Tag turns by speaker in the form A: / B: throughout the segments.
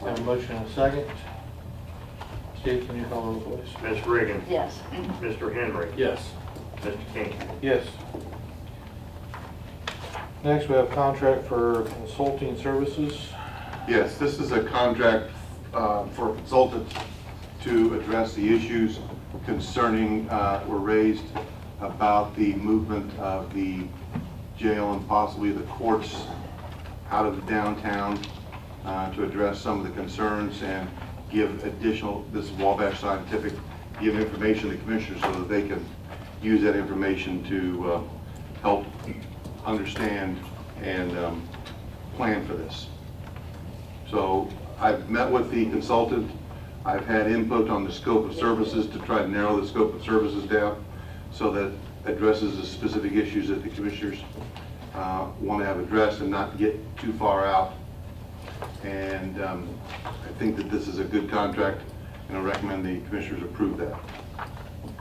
A: Have a motion and a second. Steve, can you call the roll, please?
B: Ms. Reagan.
C: Yes.
B: Mr. Henry.
D: Yes.
B: Mr. King.
A: Yes. Next, we have contract for consulting services.
E: Yes, this is a contract uh, for a consultant to address the issues concerning, uh, were raised about the movement of the jail and possibly the courts out of downtown uh, to address some of the concerns and give additional, this is Wabash Scientific, give information to the commissioners so that they can use that information to uh, help understand and um, plan for this. So I've met with the consultant, I've had input on the scope of services to try to narrow the scope of services down so that addresses the specific issues that the commissioners uh, want to have addressed and not get too far out. And um, I think that this is a good contract, and I recommend the commissioners approve that.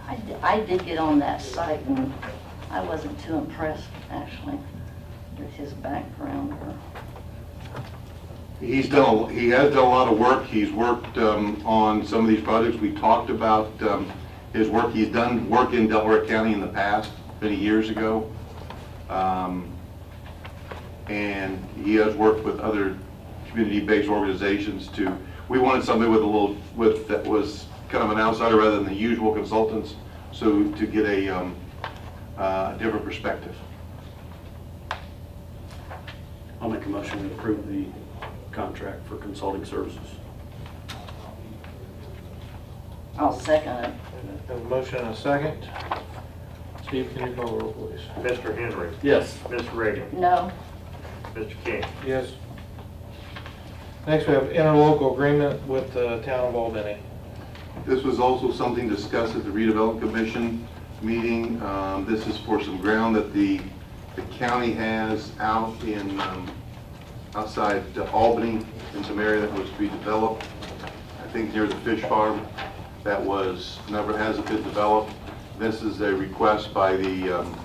C: I, d- I did get on that site and I wasn't too impressed, actually, with his background or,
E: He's done, a- he has done a lot of work. He's worked um, on some of these projects. We talked about um, his work. He's done work in Delaware County in the past, many years ago. Um, And he has worked with other community-based organizations to, we wanted somebody with a little, with, that was kind of an outsider rather than the usual consultants, so to get a um, uh, different perspective.
D: I'll make a motion to approve the contract for consulting services.
C: I'll oh, second it.
A: Have a motion and a second. Steve, can you call the roll, please?
B: Mr. Henry.
D: Yes.
B: Ms. Reagan.
C: No,
B: Mr. King.
A: Yes. Next, we have interlocal agreement with the town of Albany.
E: This was also something discussed at the redevelopment commission meeting. Um, This is for some ground that the, the county has out in, um, outside Albany, in some area that was to be developed. I think near the fish farm that was, never hasn't been developed. This is a request by the um,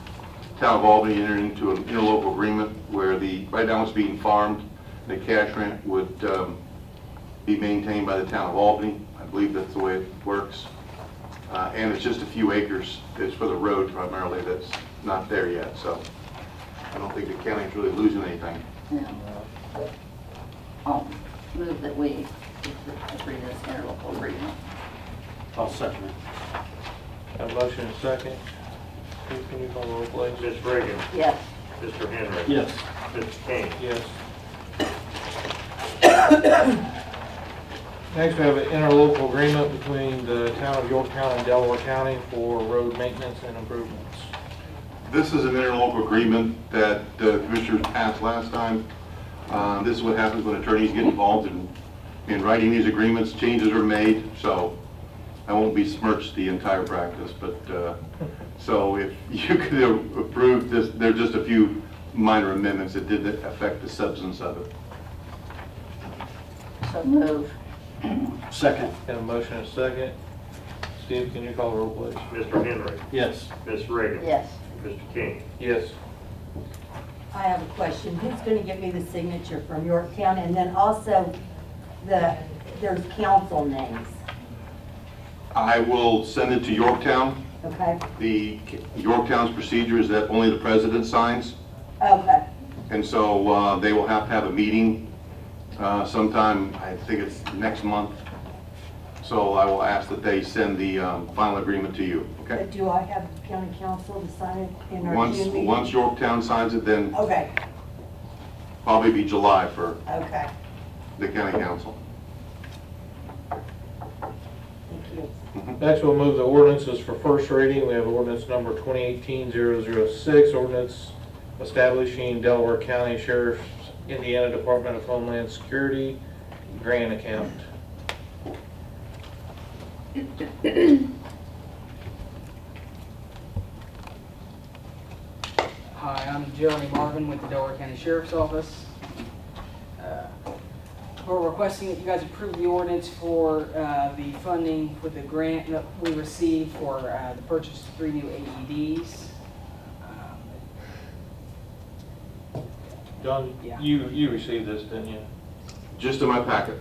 E: town of Albany entering into an interlocal agreement where the, right now it's being farmed. The cash rent would um, be maintained by the town of Albany. I believe that's the way it works. Uh, And it's just a few acres. It's for the road primarily that's not there yet, so I don't think the county's really losing anything.
C: no. I'll move that we agree to this interlocal agreement.
D: I'll second it.
A: Have a motion and a second. Steve, can you call the roll, please?
B: Ms. Reagan.
C: Yes,
B: Mr. Henry.
D: Yes.
B: Mr. King.
A: Yes. Next, we have an interlocal agreement between the town of Yorktown and Delaware County for road maintenance and improvements.
E: This is an interlocal agreement that the commissioners passed last time. Uh, This is what happens when attorneys get involved in, in writing these agreements, changes are made, so I won't besmirch the entire practice, but, uh, so if you could approve this, there are just a few minor amendments that didn't affect the substance of it.
C: so move.
D: Second.
A: Have a motion and a second. Steve, can you call the roll, please?
B: Mr. Henry.
D: Yes.
B: Ms. Reagan.
C: Yes,
B: Mr. King.
A: Yes.
F: I have a question. Who's going to give me the signature from Yorktown? And then also, the, there's council names,
E: I will send it to Yorktown.
F: okay?
E: The, Yorktown's procedure is that only the president signs.
F: Okay,
E: And so uh, they will have to have a meeting uh, sometime, I think it's next month. So I will ask that they send the um, final agreement to you, okay?
F: but do I have county council to sign it in our
E: Once,
F: June meeting?
E: once Yorktown signs it, then
F: Okay,
E: probably be July for
F: okay,
E: the county council.
F: thank you.
A: Next, we'll move the ordinances for first reading. We have ordinance number 2018-006, ordinance establishing Delaware County Sheriff's Indiana Department of Homeland Security grant account.
G: Hi, I'm Jeremy Marvin with the Delaware County Sheriff's Office. Uh, We're requesting that you guys approve the ordinance for uh, the funding with the grant that we received for uh, the purchase of three new AEDs. Um,
A: John,
G: Yeah.
A: you, you received this, didn't you?
E: Just in my packet.